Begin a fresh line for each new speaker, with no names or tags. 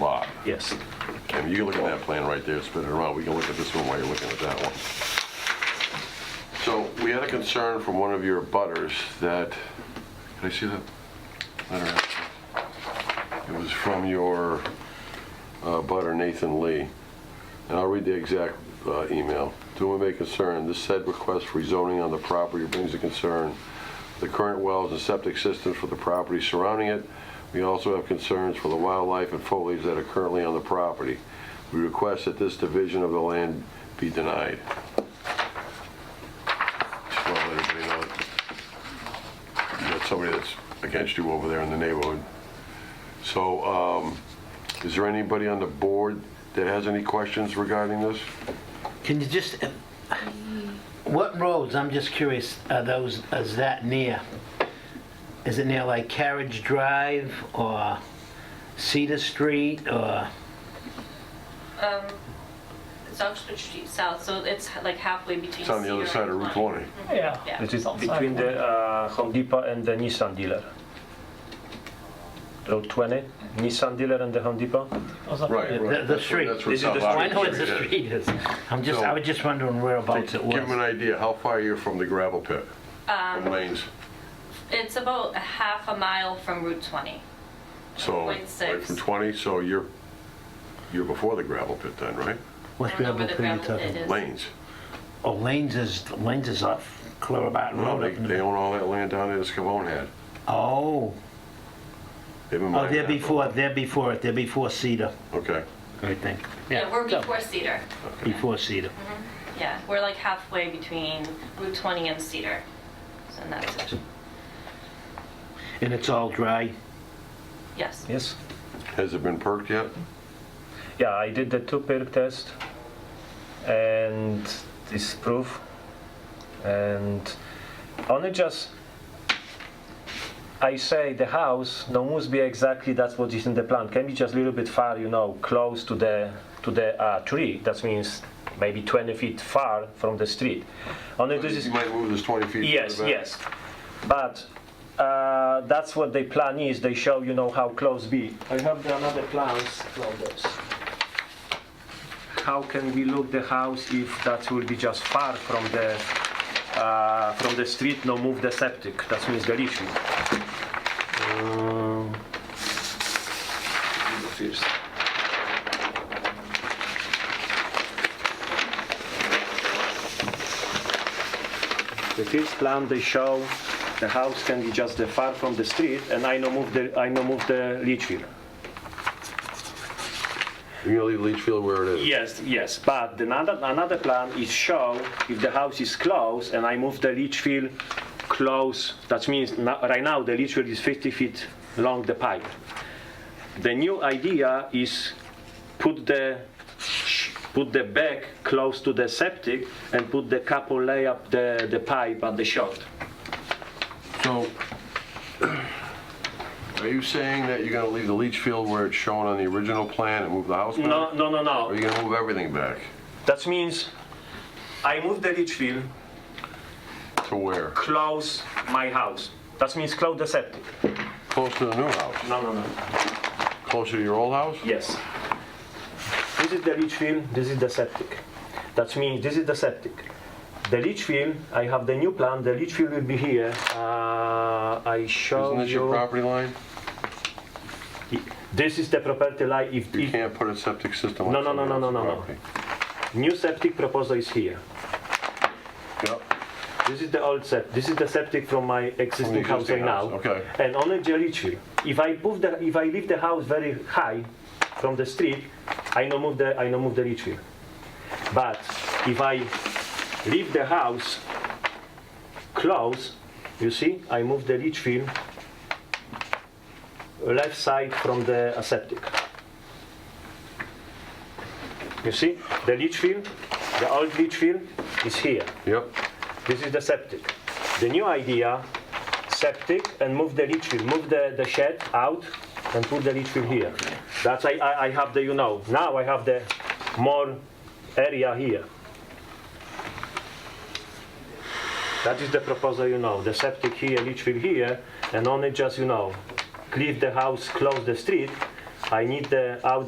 lot.
Yes.
And you can look at that plan right there, spin it around, we can look at this one while you're looking at that one. So we had a concern from one of your butters that, can I see that letter? It was from your uh, butter Nathan Lee, and I'll read the exact uh, email. To whom it may concern, this said request for rezoning on the property brings a concern the current wells and septic systems for the property surrounding it. We also have concerns for the wildlife and foliage that are currently on the property. We request that this division of the land be denied. Just want to let everybody know that you got somebody that's against you over there in the neighborhood. So, um, is there anybody on the board that has any questions regarding this?
Can you just, uh, what roads, I'm just curious, are those, is that near? Is it near like Carriage Drive or Cedar Street or,
It's Oxford Street South, so it's like halfway between.
It's on the other
Cedar
side
and
of Route
Klein.
20.
Yeah.
Yeah, it is between the uh, Home Depot and the Nissan dealer. Road 20, Nissan dealer and the Home Depot.
Right,
The-
right.
the
That's where-
street.
That's where
This is the
South
street.
I
Oxford
know it's the
is.
street is. I'm just, I was just wondering whereabouts it
Give them an
was.
idea, how far you're from the gravel pit? From
Um,
lanes,
It's about a half a mile from Route 20.
so,
Point
like from
six.
20, so you're, you're before the gravel pit then, right?
What
I don't
gravel
know where the
pit are you
gravel
talking
pit
about?
is.
Lanes.
Oh, Lanes is, Lanes is off Clarabot
Well,
Road
they,
up in
they
the,
own all that land down there that Scavone had.
oh,
They've been
oh,
mining
they're
that for-
before, they're before it, they're before Cedar,
Okay,
I think.
Yeah, we're before Cedar.
Before Cedar.
Yeah, we're like halfway between Route 20 and Cedar. So in that section.
And it's all dry.
Yes.
Yes.
has it been perked yet?
Yeah, I did the two perk test and this proof. And only just I say the house no must be exactly that's what is in the plan. Can be just a little bit far, you know, close to the to the uh, tree. That means maybe 20 feet far from the street. Only this is
You might move this 20 feet. further
Yes,
back.
yes. But uh, that's what the plan is. They show you know how close be. I have the another plans from this. How can we look the house if that will be just far from the uh, from the street? No, move the septic. That means the issue. Um, first. The first plan they show the house can be just the far from the street, and I no move the I no move the leach field.
You're gonna leave Leachfield where it is?
Yes, yes, but the another another plan is show if the house is close and I move the leach field close. That means no- right now the leach field is 50 feet long the pipe. The new idea is put the put the back close to the septic and put the couple lay up the, the pipe at the shot.
So, are you saying that you're gonna leave the Leachfield where it's shown on the original plan and move the house back?
No, no, no,
Or are
no.
you gonna move everything back?
That means I move the leach field
To where?
close my house. That means close the septic.
Close to the new house?
No, no, no.
Closer to your old house?
Yes. This is the leach field, this is the septic. That means this is the septic. The leach field, I have the new plan, the leach field will be here. Uh, I show
Isn't this your
you-
property line?
This is the property line. If,
You
if
can't put a septic system on
No, no, no,
somebody
no, no,
else's
no, no.
property.
new septic proposal is here. This is the old septic. This is the septic from my existing house
existing
right now.
house, okay.
And on the leach field, if I move the, if I leave the house very high from the street, I no move the, I no move the leach field. But if I leave the house close, you see, I move the leach field left side from the uh, septic. You see, the leach field, the old leach field is here.
Yep, yep.
This is the septic. The new idea, septic and move the leach field, move the, the shed out and put the leach field here. That's I, I, I have the, you know, now I have the more area here. That is the proposal, you know, the septic here, leach field here, and only just, you know, leave the house, close the street. I need the out